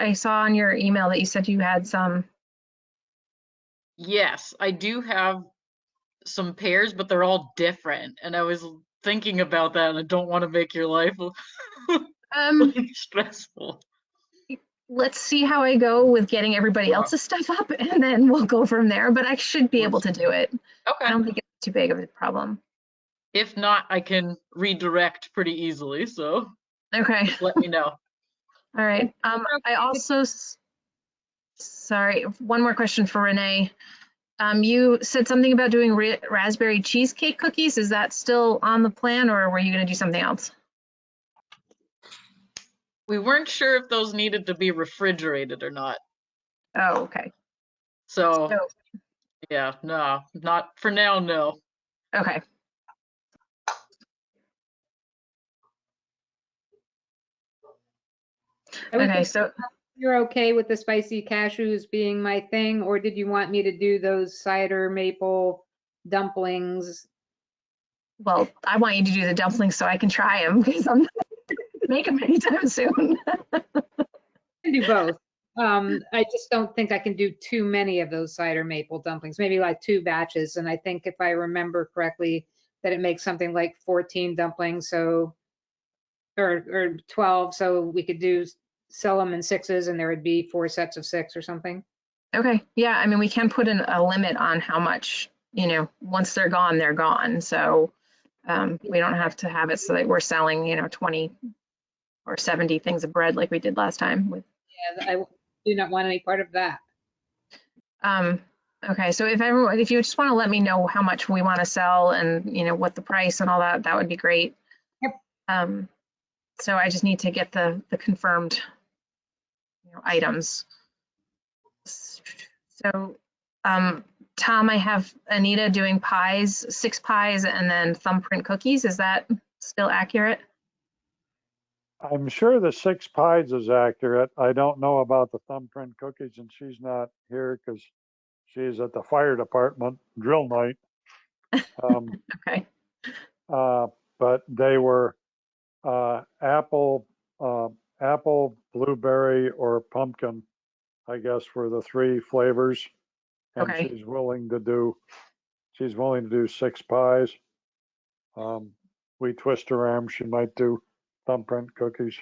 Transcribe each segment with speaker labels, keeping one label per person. Speaker 1: I saw on your email that you said you had some.
Speaker 2: Yes, I do have some pairs, but they're all different. And I was l- thinking about that, and I don't want to make your life l-
Speaker 1: Um,
Speaker 2: stressful.
Speaker 1: let's see how I go with getting everybody
Speaker 2: Wow.
Speaker 1: else's stuff up and then we'll go from there, but I should be able to do it. I
Speaker 2: Okay.
Speaker 1: don't think it's too big of a problem.
Speaker 2: If not, I can redirect pretty easily. So
Speaker 1: Okay,
Speaker 2: let me know.
Speaker 1: all right. Um, I also, s- sorry, one more question for Renee. Um, you said something about doing ra- raspberry cheesecake cookies. Is that still on the plan or were you gonna do something else?
Speaker 2: We weren't sure if those needed to be refrigerated or not.
Speaker 1: Oh, okay,
Speaker 3: Oh.
Speaker 1: Oh,
Speaker 2: So,
Speaker 1: So-
Speaker 2: yeah, no, not for now, no.
Speaker 1: okay.
Speaker 3: I would
Speaker 1: Okay,
Speaker 3: think
Speaker 1: so
Speaker 3: You're okay with the spicy cashews being my thing, or did you want me to do those cider maple dumplings?
Speaker 1: Well, I want you to do the dumplings so I can try them because I'm not making them anytime soon.
Speaker 3: I can do both. Um, I just don't think I can do too many of those cider maple dumplings, maybe like two batches. And I think if I remember correctly, that it makes something like 14 dumplings, so, or, or 12, so we could do, sell them in sixes and there would be four sets of six or something.
Speaker 1: Okay, yeah, I mean, we can put in a limit on how much, you know, once they're gone, they're gone. So um, we don't have to have it so that we're selling, you know, 20 or 70 things of bread like we did last time with.
Speaker 3: Yeah, I do not want any part of that.
Speaker 1: Um, okay, so if everyone, if you just want to let me know how much we want to sell and, you know, what the price and all that, that would be great.
Speaker 3: Yep.
Speaker 1: Um, so I just need to get the, the confirmed, you know, items. So, um, Tom, I have Anita doing pies, six pies and then thumbprint cookies. Is that still accurate?
Speaker 4: I'm sure the six pies is accurate. I don't know about the thumbprint cookies and she's not here because she's at the fire department drill night. Um,
Speaker 1: Okay,
Speaker 4: uh, but they were uh, apple, uh, apple, blueberry, or pumpkin, I guess, were the three flavors. And
Speaker 1: Okay.
Speaker 4: she's willing to do, she's willing to do six pies. Um, we twist her arm, she might do thumbprint cookies.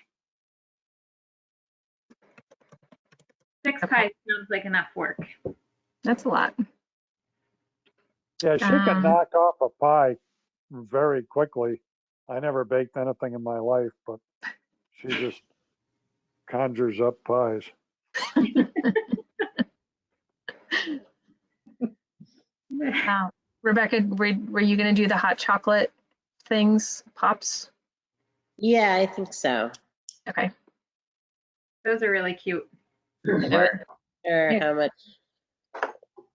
Speaker 5: Six
Speaker 1: Okay.
Speaker 5: pies sounds like enough work.
Speaker 1: that's a lot.
Speaker 4: Yeah, she
Speaker 1: Um,
Speaker 4: can knock off a pie very quickly. I never baked anything in my life, but she just conjures up pies.
Speaker 1: Uh, Rebecca, were, were you gonna do the hot chocolate things, pops?
Speaker 6: Yeah, I think so.
Speaker 1: Okay.
Speaker 5: Those are really cute.
Speaker 6: I don't sure how much.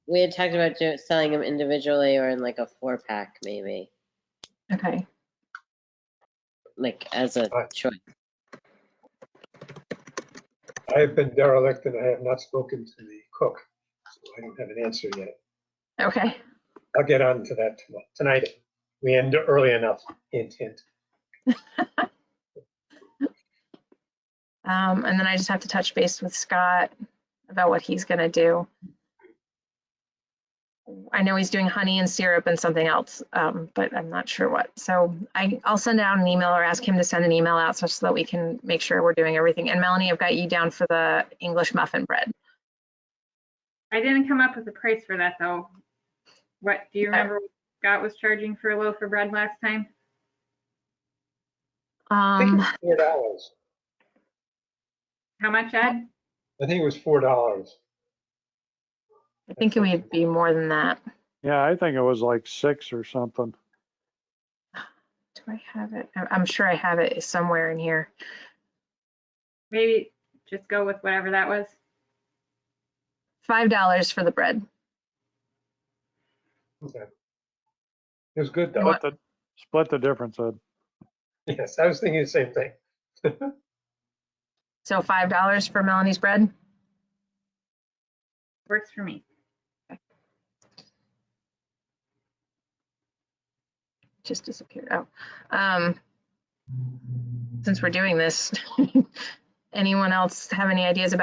Speaker 6: We had talked about do- selling them individually or in like a four pack maybe,
Speaker 1: Okay,
Speaker 6: like as a
Speaker 7: Right.
Speaker 6: choice.
Speaker 7: I have been derelict and I have not spoken to the cook. so I don't have an answer yet.
Speaker 1: okay,
Speaker 7: I'll get on to that tomo- tonight. We end early enough, hint, hint.
Speaker 1: um, and then I just have to touch base with Scott about what he's gonna do. I know he's doing honey and syrup and something else, um, but I'm not sure what. So I, I'll send out an email or ask him to send an email out so so that we can make sure we're doing everything. And Melanie, I've got you down for the English muffin bread.
Speaker 5: I didn't come up with a price for that though. What, do you
Speaker 1: Okay.
Speaker 5: remember what Scott was charging for a loaf of bread last time?
Speaker 7: I think it
Speaker 1: Um,
Speaker 7: was four dollars.
Speaker 5: How much,
Speaker 1: Mm-hmm.
Speaker 5: Ed?
Speaker 7: I think it was four dollars.
Speaker 1: I think it would be more than that.
Speaker 4: Yeah, I think it was like six or something.
Speaker 1: Do I have it? I- I'm sure I have it somewhere in here.
Speaker 5: Maybe just go with whatever that was.
Speaker 1: Five dollars for the bread.
Speaker 7: Okay. It was good though.
Speaker 4: Split the, split the difference, Ed.
Speaker 7: Yes, I was thinking the same thing.
Speaker 1: So five dollars for Melanie's bread?
Speaker 5: Works for me.
Speaker 1: just disappeared. Oh, um, since we're doing this, anyone else have any ideas about?